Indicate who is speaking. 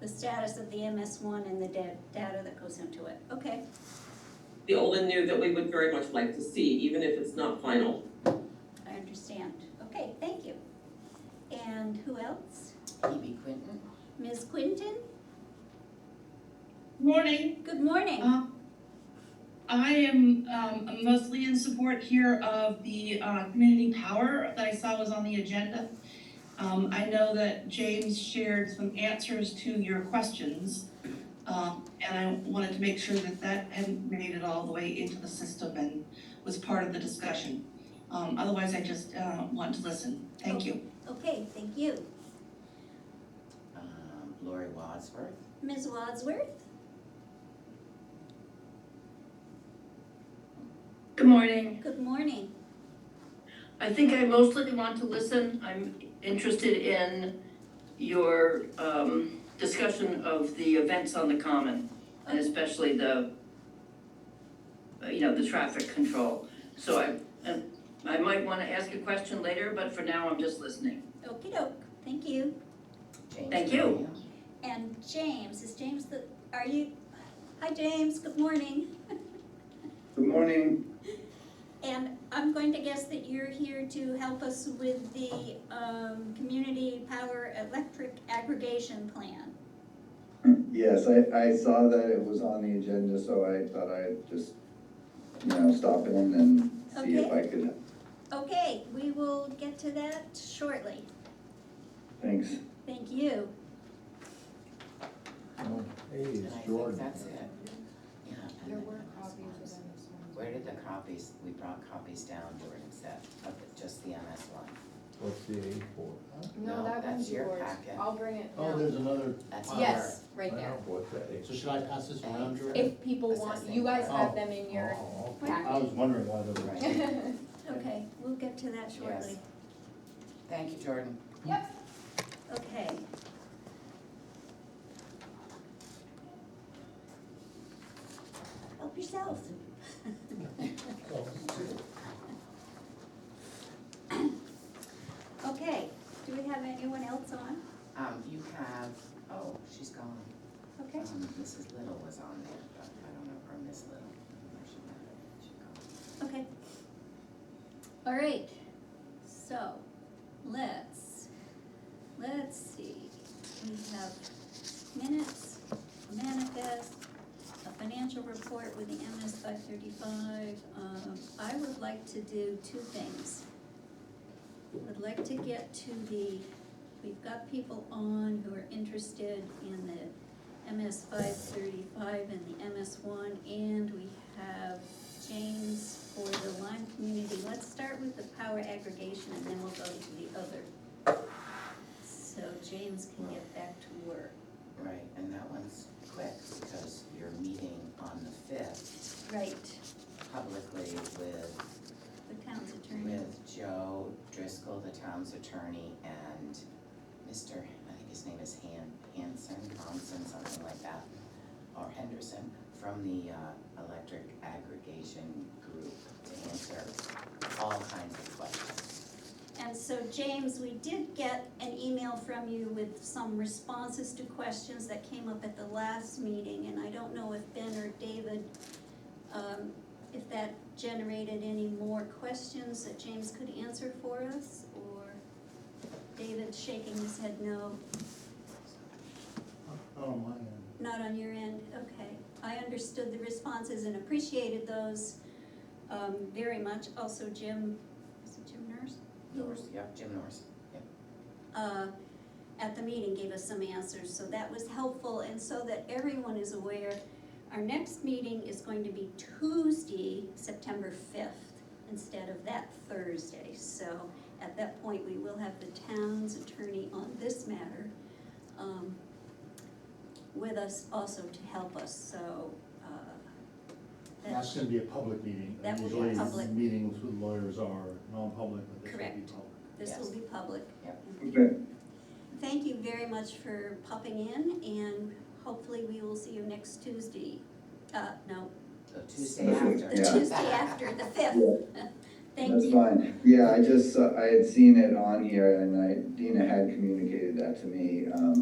Speaker 1: the status of the MS one and the da- data that goes into it. Okay,
Speaker 2: the old and new that we would very much like to see, even if it's not final.
Speaker 1: I understand. Okay, thank you. And who else?
Speaker 3: Phoebe Quinton.
Speaker 1: Ms. Quinton?
Speaker 4: Morning.
Speaker 1: Good morning.
Speaker 4: Uh, I am um, mostly in support here of the uh, community power that I saw was on the agenda. Um, I know that James shared some answers to your questions, um, and I wanted to make sure that that hadn't made it all the way into the system and was part of the discussion. Um, Otherwise, I just uh, want to listen. Thank you.
Speaker 1: Okay, thank you.
Speaker 3: Um, Lori Wadsworth.
Speaker 1: Ms. Wadsworth?
Speaker 5: Good morning.
Speaker 1: Good morning.
Speaker 5: I think I mostly want to listen. I'm interested in your um, discussion of the events on the common and especially the, uh, you know, the traffic control. So I, uh, I might want to ask a question later, but for now, I'm just listening.
Speaker 1: okey doke, thank you.
Speaker 3: James
Speaker 5: Thank you.
Speaker 3: Graham.
Speaker 1: And James, is James the, are you? Hi, James, good morning.
Speaker 6: Good morning.
Speaker 1: And I'm going to guess that you're here to help us with the um, community power electric aggregation plan.
Speaker 6: Yes, I, I saw that it was on the agenda, so I thought I'd just, you know, stop in and see if I could.
Speaker 1: Okay, we will get to that shortly.
Speaker 6: Thanks.
Speaker 1: Thank you.
Speaker 7: Hey,
Speaker 3: And
Speaker 7: it's
Speaker 3: I think
Speaker 7: Jordan.
Speaker 3: that's it. Yeah. and
Speaker 8: There
Speaker 3: then
Speaker 8: were
Speaker 3: that was
Speaker 8: copies
Speaker 3: ones.
Speaker 8: of MS one.
Speaker 3: Where did the copies, we brought copies down, Jordan, except of the- just the MS one.
Speaker 7: What's the A for? huh?
Speaker 3: No,
Speaker 8: No, that
Speaker 3: that's
Speaker 8: one's
Speaker 3: your
Speaker 8: yours.
Speaker 3: packet.
Speaker 8: I'll bring it
Speaker 9: Oh,
Speaker 8: now.
Speaker 9: there's another,
Speaker 3: That's
Speaker 9: Wow.
Speaker 3: yours.
Speaker 8: Yes, right there.
Speaker 7: Wow, What's that A?
Speaker 9: so should I pass this around, Jordan?
Speaker 8: If people want, you
Speaker 3: Assessing.
Speaker 8: guys have
Speaker 9: Oh.
Speaker 8: them in your
Speaker 7: Oh, okay.
Speaker 8: packet.
Speaker 9: I was wondering why there was.
Speaker 3: Right.
Speaker 1: Okay, we'll get to that shortly.
Speaker 3: Yes. Thank you, Jordan.
Speaker 8: Yep.
Speaker 1: Okay. Help yourself. Okay, do we have anyone else on?
Speaker 3: Um, you have, oh, she's gone.
Speaker 1: Okay,
Speaker 3: Um, Mrs. Little was on there, but I don't know, or Miss Little, I don't know if she went or she gone.
Speaker 1: okay. All right, so, let's, let's see, we have minutes, a manifest, a financial report with the MS five thirty-five. Um, I would like to do two things. Would like to get to the, we've got people on who are interested in the MS five thirty-five and the MS one, and we have James for the Lyme community. Let's start with the power aggregation and then we'll go to the other. So James can get back to work.
Speaker 3: Right, and that one's quick because you're meeting on the fifth
Speaker 1: Right.
Speaker 3: publicly with,
Speaker 1: The town's attorney.
Speaker 3: with Joe Driscoll, the town's attorney, and Mr., I think his name is Han, Hanson, Hanson, something like that, or Henderson, from the, uh, electric aggregation group to answer all kinds of questions.
Speaker 1: And so James, we did get an email from you with some responses to questions that came up at the last meeting, and I don't know if Ben or David, um, if that generated any more questions that James could answer for us, or David shaking his head no.
Speaker 9: Oh, my, end.
Speaker 1: Not on your end, okay. I understood the responses and appreciated those um, very much. Also Jim, is it Jim Nurse?
Speaker 3: Norris, yep, Jim Norris.
Speaker 1: uh, at the meeting gave us some answers, so that was helpful, and so that everyone is aware, our next meeting is going to be Tuesday, September fifth, instead of that Thursday, so at that point, we will have the town's attorney on this matter, um, with us also to help us, so, uh,
Speaker 9: that's
Speaker 1: that's
Speaker 9: gonna be a public meeting.
Speaker 1: That will be
Speaker 9: Usually
Speaker 1: public.
Speaker 9: Meetings with lawyers are non-public, but this will be
Speaker 1: Correct.
Speaker 9: public.
Speaker 1: this will be public.
Speaker 3: Yep.
Speaker 6: Okay,
Speaker 1: Thank you very much for popping in, and hopefully we will see you next Tuesday. Uh, no,
Speaker 3: So Tuesday after.
Speaker 1: the
Speaker 6: Yeah.
Speaker 1: Tuesday after, the fifth.
Speaker 6: yeah,
Speaker 1: Thank
Speaker 6: that's
Speaker 1: you.
Speaker 6: fine. Yeah, I just, saw- I had seen it on here and I, Dina had communicated that to me, um,